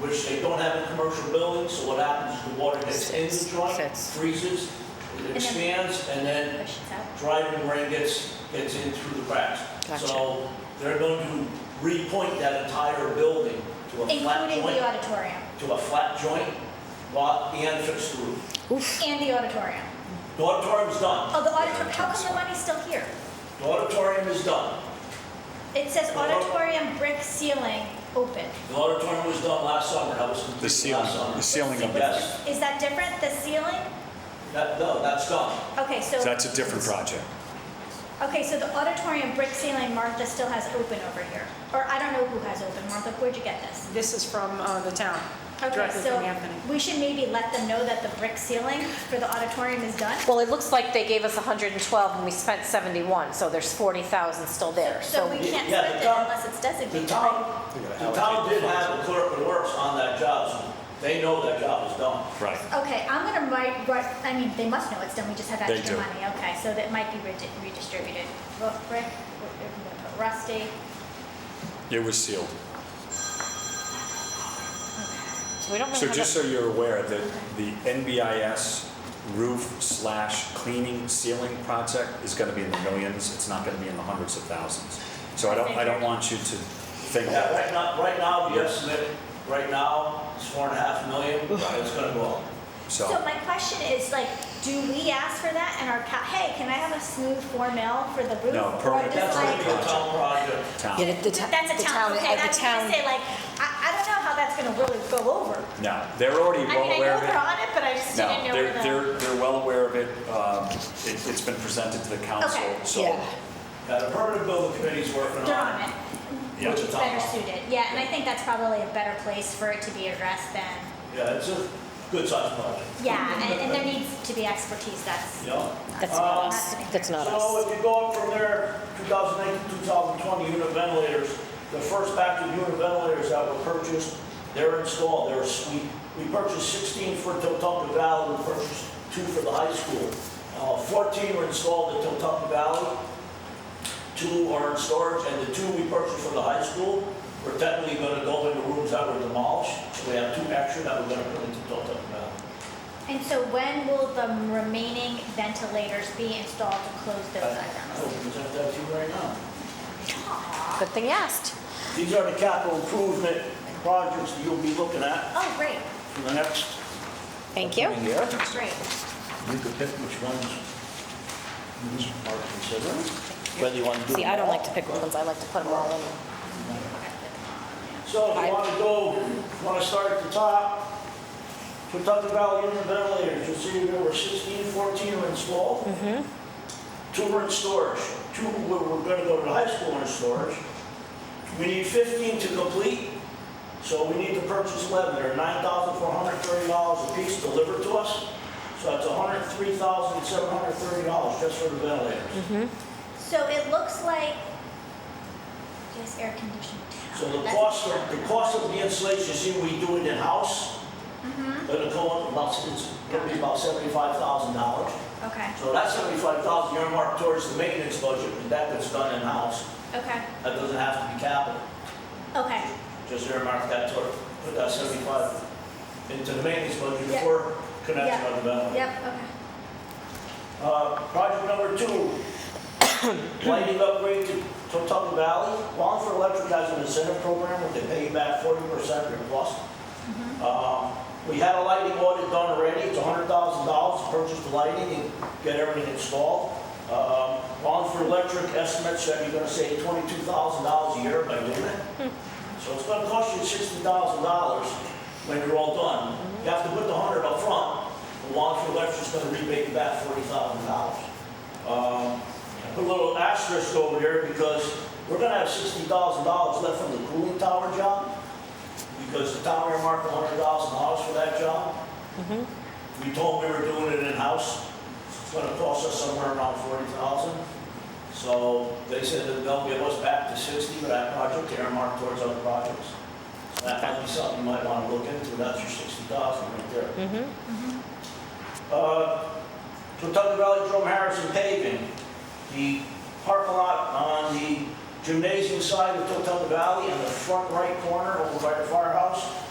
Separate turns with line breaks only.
which they don't have in commercial buildings, so what happens is the water gets in the
Sits,
joint,
sits.
freezes, it expands, and then
Questions out?
driving rain gets, gets in through the cracks.
Gotcha.
So they're going to repoint that entire building to a flat
Including the
joint,
auditorium
to a flat joint, lot and fix the roof.
Oof.
and the auditorium.
The auditorium's done.
Oh, the auditorium, how come the money's still here?
The auditorium is done.
It says
Well,
auditorium brick ceiling open.
The auditorium was done last summer. That was
The
completed
ceiling,
last summer.
the ceiling of it.
Yes,
Is that different, the ceiling?
that, no, that's done.
Okay, so,
That's a different project.
okay, so the auditorium brick ceiling Martha still has open over here. Or I don't know who has open, Martha, where'd you get this?
This is from uh, the town,
Okay,
directly
so
from Anthony.
we should maybe let them know that the brick ceiling for the auditorium is done.
Well, it looks like they gave us 112 and we spent 71, so there's 40,000 still there.
So we
Yeah,
can't
yeah,
spend
the
it
town-
unless it's
The
designated. right?
town, the town did have a clerk of works on that job, so they know that job is done.
Right.
Okay, I'm gonna write, write, I mean, they must know it's done, we just have
They
extra
do.
money, okay, so that might be redi- redistributed. Ru- Brick, ru- rusty,
It was sealed.
So we don't really
So
have
just
a-
so you're aware, the, the NBIS roof slash cleaning ceiling project is gonna be in the millions, it's not gonna be in the hundreds of thousands. So I don't, I don't want you to think
Yeah, right
that.
now, right now, the estimate, right now, is four and a half million, it's gonna go up.
So,
So my question is like, do we ask for that and our, co- hey, can I have a smooth four mil for the roof?
No,
Or
permanent,
just
That's gonna be
like-
a town project.
Yeah,
town,
the- the ta-
That's a
the
town, okay,
uh,
I
the
was gonna
town-
say like, I, I don't know how that's gonna really go over.
no, they're already
I
well
mean, I
aware
know
of it.
they're on it, but I just didn't
No,
know where
they're,
the.
they're, they're well aware of it, um, it, it's been presented to the council,
Okay.
so.
Yeah.
Yeah, the permanent building committee's working
They're on
on it.
it,
Yeah.
which is
It's on
better
it.
suited, yeah, and I think that's probably a better place for it to be addressed than,
Yeah, it's a good sized project,
yeah, and, and there needs to be expertise that's.
you know?
That's
Uh,
not us, that's not us.
So if you go up from there, 2019, 2020 unit ventilators, the first batch of unit ventilators that were purchased, they're installed, they're sweet. We purchased 16 for Totucket Valley, we purchased two for the high school. Uh, 14 were installed at Totucket Valley, two are in storage, and the two we purchased for the high school, we're technically gonna go into rooms that were demolished, so we have two extra that we're gonna put into Totucket Valley.
And so when will the remaining ventilators be installed to close those
I
items?
will present that to you right now.
Good thing you asked.
These are the capital improvement projects that you'll be looking at
Oh, great,
for the next.
Thank you.
coming year.
great.
You could pick which ones you are considering, whether you want to do
See,
them
I don't like
all.
to pick ones, I like to put them all in.
So if
I-
you want to go, want to start at the top, Pawtucket Valley Unit Ventilators, you'll see there were 16, 14 were installed. Two were in storage, two were, were gonna go to the high school in storage. We need 15 to complete, so we need to purchase 11, they're $9,430 apiece delivered to us. So that's $103,730 just for the ventilators.
So it looks like, yes, air conditioned town.
So the
That's-
cost, of- the cost of the installation, see, we do it in-house. It'll go up about, it's gonna be about seventy-five thousand dollars.
Okay,
So that's seventy-five thousand earmarked towards the maintenance budget, and that gets done in-house.
okay,
That doesn't have to be capital,
okay,
just earmark that toward, put that seventy-five into the maintenance budget
Yeah.
before connecting on the balance.
yep, okay.
Uh, Project number two, lighting upgrade to Totucket Valley. Wallingford Electric has an incentive program where they pay you back forty percent of your cost. Um, We had a lighting audit done already, it's hundred thousand dollars to purchase the lighting and get everything installed. Um, Wallingford Electric estimates that you're gonna save twenty-two thousand dollars a year by doing it. So it's gonna cost you sixty thousand dollars when you're all done. You have to put the hundred up front, the Wallingford Electric's gonna rebate you back forty thousand dollars. Um, Put a little asterisk over there because we're gonna have sixty thousand dollars left from the cooling tower job, because the town earmarked hundred thousand dollars for that job. We told them we were doing it in-house, it's gonna cost us somewhere around forty thousand. So they said that they'll give us back the sixty for that project, they earmarked towards other projects. So that might be something you might wanna look into, that's your sixty thousand right there. Uh, Totucket Valley Jerome Harrison paving, the parking lot on the gymnasium side of Totucket Valley on the front right corner over by the firehouse.